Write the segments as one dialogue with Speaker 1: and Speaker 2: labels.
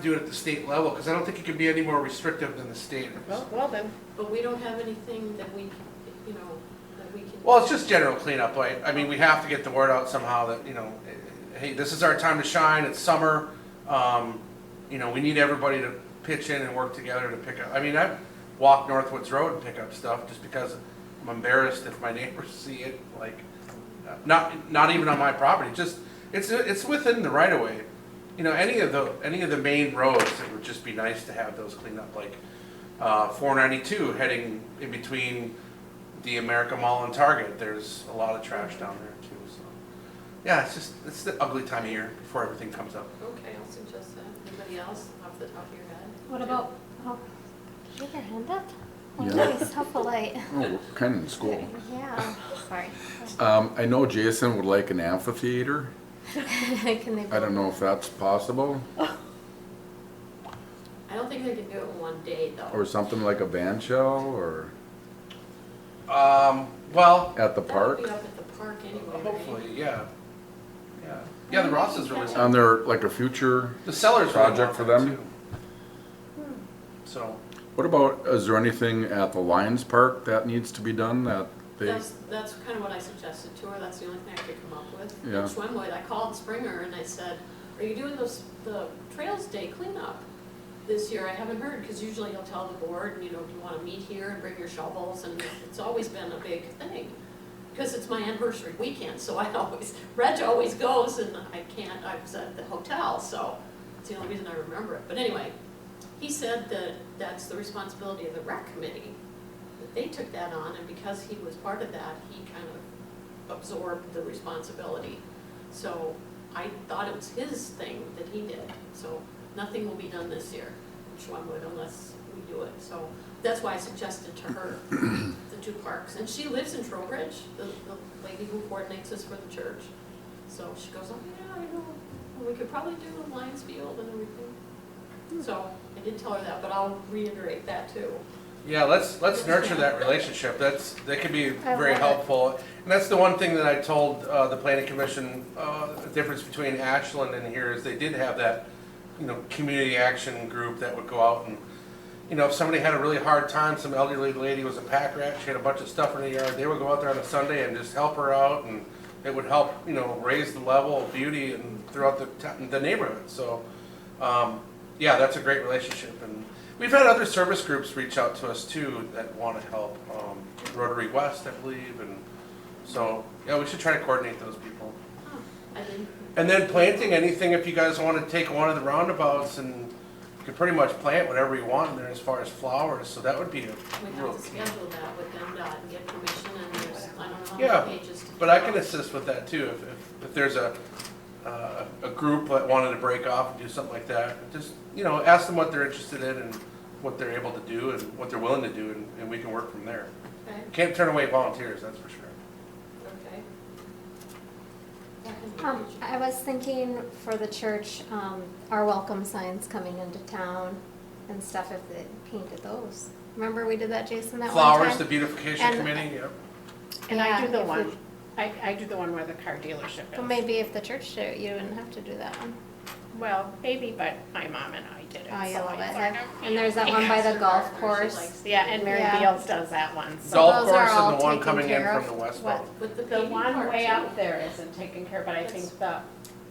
Speaker 1: do it at the state level, because I don't think it can be any more restrictive than the standards.
Speaker 2: Well, well then,
Speaker 3: But we don't have anything that we, you know, that we can.
Speaker 1: Well, it's just general cleanup, like, I mean, we have to get the word out somehow that, you know, hey, this is our time to shine, it's summer. Um, you know, we need everybody to pitch in and work together to pick up, I mean, I've walked Northwoods Road and pick up stuff just because I'm embarrassed if my neighbors see it, like, not, not even on my property, just, it's, it's within the right of way. You know, any of the, any of the main roads, it would just be nice to have those cleaned up, like, uh, four ninety-two heading in between the America Mall and Target, there's a lot of trash down there too, so. Yeah, it's just, it's the ugly time of year before everything comes up.
Speaker 3: Okay, I'll suggest that. Anybody else off the top of your head?
Speaker 4: What about, oh, you have your hand up? Oh,
Speaker 5: Yeah.
Speaker 4: nice, helpful
Speaker 5: Oh, we're kind of in school.
Speaker 4: Yeah, sorry.
Speaker 5: Um, I know Jason would like an amphitheater.
Speaker 4: Can they?
Speaker 5: I don't know if that's possible,
Speaker 3: I don't think they can do it in one day,
Speaker 5: or
Speaker 3: though.
Speaker 5: something like a band shell, or
Speaker 1: Um, well,
Speaker 5: at the
Speaker 3: That would
Speaker 5: park.
Speaker 3: be up at the park anyway, right?
Speaker 1: hopefully, yeah. Yeah, yeah, the Ross is really,
Speaker 5: On their, like a future,
Speaker 1: the seller's really want
Speaker 5: Um, Project for
Speaker 1: that,
Speaker 5: them?
Speaker 1: too. Hmm. So,
Speaker 5: what about, is there anything at the Lions Park that needs to be done that they,
Speaker 3: That's, that's kind of what I suggested to her, that's the only thing I could come up with.
Speaker 5: Yeah.
Speaker 3: Which one would, I called Springer and I said, are you doing those, the Trails Day cleanup this year? I haven't heard, because usually you'll tell the board, you know, do you want to meet here and bring your shovels, and it's always been a big thing. Because it's my anniversary weekend, so I always, Reg always goes and I can't, I was at the hotel, so it's the only reason I remember it. But anyway, he said that that's the responsibility of the rec committee that they took that on, and because he was part of that, he kind of absorbed the responsibility. So I thought it was his thing that he did, so nothing will be done this year, which one would unless we do it. So that's why I suggested to her the two parks, and she lives in Trowbridge, the, the lady who coordinates this for the church. So she goes, oh, yeah, I know, Well, we could probably do Lions Field and everything. So I did tell her that, but I'll reiterate that too.
Speaker 1: yeah, let's, let's nurture that relationship, that's, that could be
Speaker 4: I
Speaker 1: very
Speaker 4: love it.
Speaker 1: helpful. And that's the one thing that I told, uh, the planning commission, uh, the difference between Ashland and here is they did have that, you know, community action group that would go out and you know, if somebody had a really hard time, some elderly lady was a pack rat, she had a bunch of stuff in her yard, they would go out there on a Sunday and just help her out, and it would help, you know, raise the level of beauty and throughout the, t- the neighborhood, so, um, yeah, that's a great relationship, and we've had other service groups reach out to us too that wanna help, um, Rotary West, I believe, and so, yeah, we should try to coordinate those people.
Speaker 3: Huh, I didn't,
Speaker 1: And then planting anything, if you guys want to take one of the roundabouts and you can pretty much plant whatever you want in there as far as flowers, so that would be a
Speaker 3: we
Speaker 1: real
Speaker 3: have to
Speaker 1: key.
Speaker 3: schedule that with MDOT and get permission and there's, I don't know
Speaker 1: Yeah,
Speaker 3: how many pages. to
Speaker 1: But I
Speaker 3: fill
Speaker 1: can
Speaker 3: out.
Speaker 1: assist with that too, if, if, if there's a, uh, a group that wanted to break off and do something like that, just, you know, ask them what they're interested in and what they're able to do and what they're willing to do, and, and we can work from there.
Speaker 3: Okay,
Speaker 1: Can't turn away volunteers, that's for sure.
Speaker 3: okay.
Speaker 4: Um, I was thinking for the church, um, our welcome signs coming into town and stuff, if they painted those. Remember we did that, Jason, that one
Speaker 1: Flowers, the
Speaker 4: time?
Speaker 1: beautification
Speaker 4: And-
Speaker 1: committee, yeah.
Speaker 2: and I do
Speaker 4: Yeah,
Speaker 2: the
Speaker 4: if
Speaker 2: one,
Speaker 4: we-
Speaker 2: I, I do the one where the car dealership
Speaker 4: But
Speaker 2: is.
Speaker 4: maybe if the church did it, you wouldn't have to do that one.
Speaker 2: Well, maybe, but my mom and I did it.
Speaker 4: Oh, you
Speaker 2: so
Speaker 4: love
Speaker 2: I
Speaker 4: it.
Speaker 2: sort
Speaker 4: And-
Speaker 2: of-
Speaker 4: And there's that one by the golf
Speaker 3: She likes
Speaker 4: course.
Speaker 3: to-
Speaker 2: Yeah, and Mary
Speaker 4: Yeah.
Speaker 2: Beals does that one, so.
Speaker 1: Golf
Speaker 4: those are
Speaker 1: course and
Speaker 4: all
Speaker 1: the one
Speaker 4: taken
Speaker 1: coming in
Speaker 4: care
Speaker 1: from
Speaker 4: of.
Speaker 1: the west
Speaker 4: What?
Speaker 1: wall.
Speaker 3: With the
Speaker 2: The
Speaker 3: paving
Speaker 2: one
Speaker 3: part
Speaker 2: way
Speaker 3: too.
Speaker 2: out there isn't taken care, of, but I think the,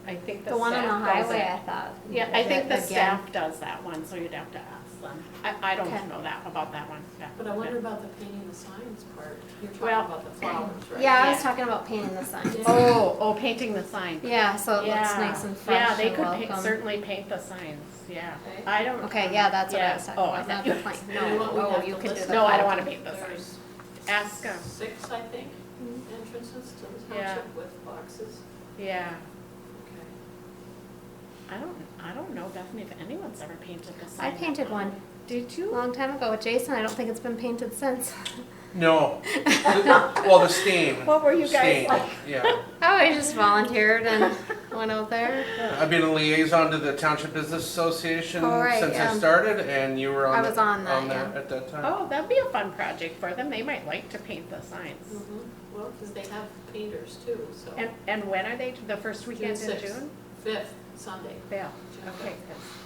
Speaker 2: I think the staff does it.
Speaker 4: The one on the highway, I thought.
Speaker 2: Yeah, I think the
Speaker 4: Again.
Speaker 2: staff does that one, so you'd have to ask them. I, I don't
Speaker 4: Okay.
Speaker 2: know that, about that one. yeah.
Speaker 3: But I wonder about the painting the signs part. You're talking
Speaker 2: Well-
Speaker 3: about the flowers, right?
Speaker 4: Yeah, I was
Speaker 2: Yeah.
Speaker 4: talking about painting the sign.
Speaker 3: Yeah.
Speaker 2: Oh, oh, painting the sign.
Speaker 4: Yeah, so it looks
Speaker 2: Yeah.
Speaker 4: nice and fresh
Speaker 2: Yeah, they
Speaker 4: and
Speaker 2: could paint-
Speaker 4: welcome.
Speaker 2: certainly paint the signs, yeah.
Speaker 3: Okay.
Speaker 2: I don't.
Speaker 4: Okay, yeah, that's what I was talking
Speaker 2: Oh, I
Speaker 4: about, not
Speaker 2: thought
Speaker 4: the
Speaker 2: you.
Speaker 4: plank,
Speaker 3: You know what, we
Speaker 4: no, oh,
Speaker 3: have
Speaker 4: you
Speaker 3: to
Speaker 4: could do
Speaker 3: list-
Speaker 4: the.
Speaker 2: No, I don't
Speaker 4: plank.
Speaker 2: wanna paint the signs.
Speaker 3: There's
Speaker 2: Ask them,
Speaker 3: six, I think,
Speaker 4: Mm-hmm.
Speaker 3: entrances to the
Speaker 2: Yeah.
Speaker 3: township with boxes.
Speaker 2: yeah.
Speaker 3: Okay.
Speaker 2: I don't, I don't know, Bethany, if anyone's ever painted the
Speaker 4: I
Speaker 2: sign.
Speaker 4: painted one.
Speaker 2: Did
Speaker 4: a
Speaker 2: you?
Speaker 4: Long time ago with Jason, I don't think it's been painted since.
Speaker 1: No. well, the steam.
Speaker 2: What were you guys
Speaker 1: Steam,
Speaker 2: like?
Speaker 1: Yeah.
Speaker 4: Oh, I just volunteered and went out there.
Speaker 1: I've been a liaison to the Township Business Association
Speaker 4: Oh, right,
Speaker 1: since I
Speaker 4: yeah.
Speaker 1: started, and you were on.
Speaker 4: I
Speaker 1: the-
Speaker 4: was on that, yeah.
Speaker 1: At that time.
Speaker 2: Oh, that'd be a fun project for them, they might like to paint the signs.
Speaker 3: Mhm.
Speaker 4: Mm-hmm.
Speaker 3: Well, because they have painters too, so.
Speaker 2: And, and when are they, the first weekend in
Speaker 3: sixth.
Speaker 2: June?
Speaker 3: Fifth, Sunday.
Speaker 2: Yeah,
Speaker 3: June
Speaker 2: okay,
Speaker 3: fifth.
Speaker 2: 'cause